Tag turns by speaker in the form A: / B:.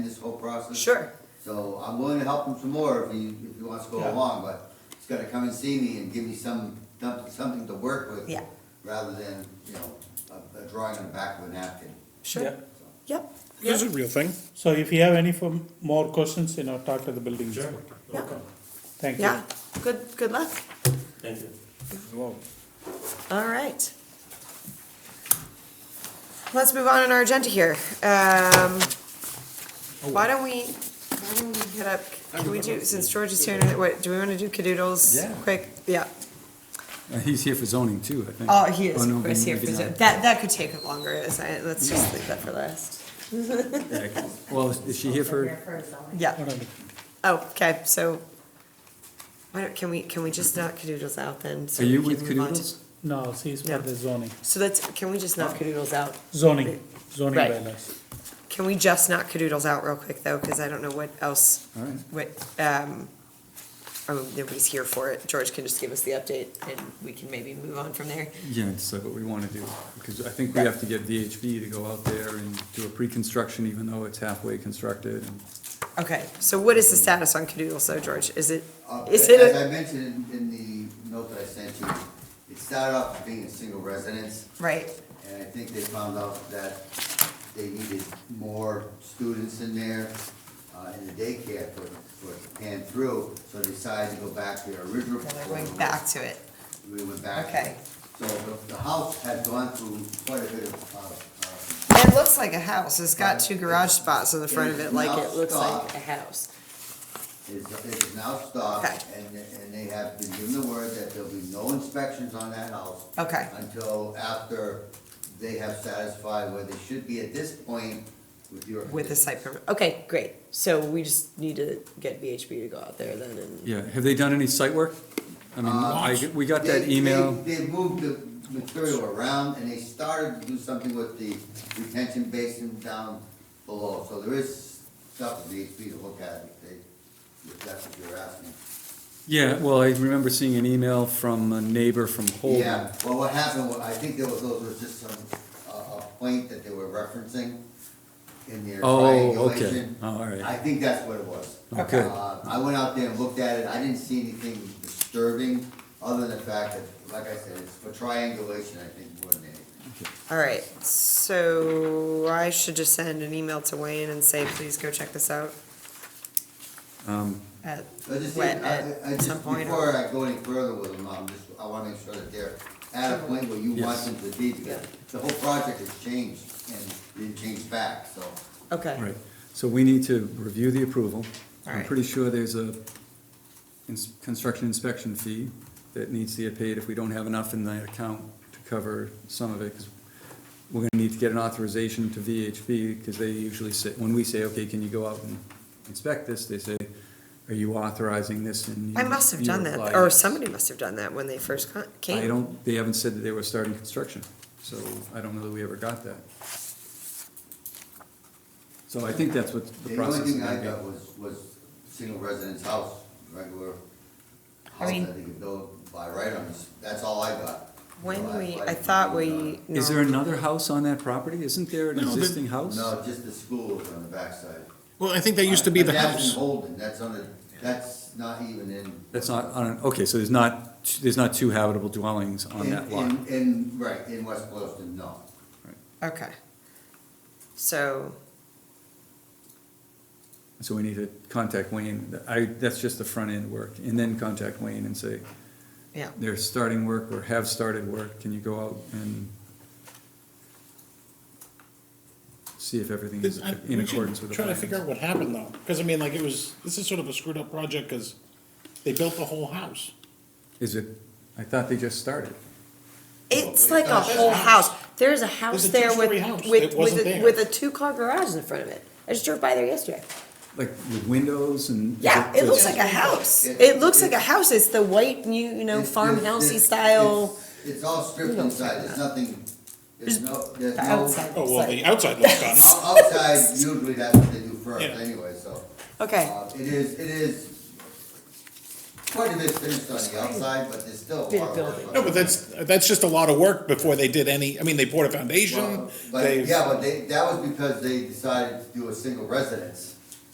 A: process.
B: Sure,
A: So I'm willing to help him some more if he, if he wants to go
C: Yeah.
A: along, but he's gotta come and see me and give me some, something to work with.
B: Yeah.
A: Rather than, you know, a, a drawing on the back of a napkin.
B: sure,
A: So,
B: yep,
D: This
B: yep,
D: is a real thing.
C: So if you have any for more questions, you know, talk to the building inspector.
B: yeah,
C: Thank you.
B: yeah, good, good luck,
E: Thank you.
B: all right. Let's move on in our agenda here, um,
F: Oh,
B: why don't we, why don't we hit up, can we do, since George is here, what, do we wanna do
F: Yeah.
B: cadoodles quick, yeah.
F: Uh, He's here for zoning too, I think.
B: Oh, he is,
F: no,
B: of course,
F: maybe
B: here for
F: not.
B: Zoom. That, that could take longer, is I, let's just leave that for last.
F: Yeah, Well, is- is she here for,
B: Yeah,
C: Whatever.
B: oh, okay, so, why don't, can we, can we just knock cadoodles out then? so
F: are you
B: we
F: with
B: can move on to-
F: Cadoodles?
C: No, see, it's for
B: Yeah.
C: the zoning,
B: So let's, can we just knock cadoodles out?
C: zoning, zoning
B: Right.
C: bylaws.
B: Can we just knock cadoodles out real quick, though, because I don't know what else,
F: All right.
B: what, um, oh, nobody's here for it. George can just give us the update, and we can maybe move on from there.
F: Yeah, it's like what we want to do, because I think we have to get VHB to go out there and do a pre-construction, even though it's halfway constructed. and-
B: Okay, so what is the status on cadoodles, though, George? Is it,
A: uh,
B: is it?
A: As I
B: a-
A: mentioned in, in the note that I sent you, it started off being a single residence,
B: Right,
A: and I think they found out that they needed more students in there, uh, in the daycare for, for it to pan through, so they decided to go back to their original.
B: so they're
A: proposal.
B: going back to it.
A: we went back.
B: Okay.
A: So the, the house had gone through quite a bit of, uh,
B: It looks like a house. It's got two garage spots on the front of it, like it looks like a house.
A: uh, is, is now stopped,
B: Okay.
A: and, and they have been given the word that there'll be no inspections on that house
B: Okay,
A: until after they have satisfied where they should be at this point with your.
B: with the site permit. Okay, great. So we just need to get VHB to go out there then and,
F: Yeah, have they done any site work? I mean, I, we got that
A: Uh, They-
F: email,
A: They they moved the material around, and they started to do something with the retention basin down below, so there is stuff that needs to be looked at, if they, if that's what you're asking.
F: yeah, well, I remember seeing an email from a neighbor from Holden.
A: Yeah, well, what happened, was- I think there was, those was just some, a, a point that they were referencing in their
F: Oh, okay.
A: triangulation.
F: Oh, all right. Oh,
A: I think that's what it was.
F: Okay.
A: Uh, I went out there and looked at it, I didn't see anything disturbing, other than the fact that, like I said, it's for triangulation, I think, more than anything.
B: all right. So I should just send an email to Wayne and say, please go check this out.
F: Um,
B: At-
A: I just,
B: Wet
A: think- I,
B: at
A: I I just,
B: some point or-
A: before I go any further with them, I'm just, I wanna make sure that they're at a point where you want
F: Yes.
A: them to be, because the whole project has changed, and it changed back, so.
B: Okay.
F: Right, so we need to review the approval. I'm
B: Alright.
F: pretty sure there's a ins- construction inspection fee that needs to get paid if we don't have enough in the account to cover some of it, because we're gonna need to get an authorization to VHB, because they usually say, when we say, okay, can you go out and inspect this, they say, are you authorizing this? And
B: I
F: you-
B: must have
F: you
B: done that,
F: reply,
B: or
F: "Yes."
B: somebody must have done that when they first con-
F: I
B: came.
F: don't, they haven't said that they were starting construction, so I don't know that we ever got that. So I think that's what the
A: The only
F: process is
A: thing I
F: gonna
A: got was, was single residence house, regular
B: I
A: house
B: mean-
A: that they could build by right on this, that's all I got. No,
B: When we, I
A: didn't
B: thought
A: do
B: we.
F: be. Is there
B: normally-
F: another house on that property? Isn't there an
D: No, there-
F: existing
A: none.
F: house?
A: No, just the school was on the backside.
D: Well, I think that used to be
A: But
D: the
A: That's in
D: house.
A: Holden, that's on the, that's not even in.
F: That's not, on, okay, so there's not, t- there's not two habitable dwellings on
A: in-
F: that lot.
A: In, in, right, in West Boylston, no.
B: Okay. So,
F: So we need to contact Wayne. I, that's just the front end work, and then contact Wayne and say,
B: yeah,
F: they're starting work or have started work, can you go out and see if everything is
D: I-
F: in
D: we should
F: accordance with the
D: Try to
F: plans?
D: figure out what happened though, because I mean, like, it was, this is sort of a screwed up project, because they built the whole house.
F: Is it, I thought they just started.
B: it's like a whole house. There's a house
D: There's a
B: there
D: two-story house
B: with, with,
D: that wasn't
B: with, a-
D: there.
B: with a two-car garage in front of it. I just drove by there yesterday.
F: Like with windows and? is
B: Yeah, it looks
F: just-
B: like a house.
A: It-
B: It looks like a
A: it-
B: house. It's the white, you, you know,
A: It's- it's-
B: farmhousey
A: it's-
B: style.
A: it's- It's all stripped
B: don't
A: inside,
B: like
A: there's
B: that.
A: nothing, there's
B: Just
A: no, there's
B: The
A: no,
B: outside
D: Oh, well, the
B: side.
D: outside looks done.
A: o- outside, usually that's what they do first
D: Yeah.
A: anyway, so.
B: Okay,
A: Uh, It is, it is quite a bit finished on the outside, but there's still a
B: Big
A: lot of work.
B: building.
A: on
D: No, but
A: it.
D: that's, that's just a lot of work before they did any, I mean, they poured a foundation,
A: Well, But,
D: they,
A: yeah, but they, that was because they decided to do a single residence.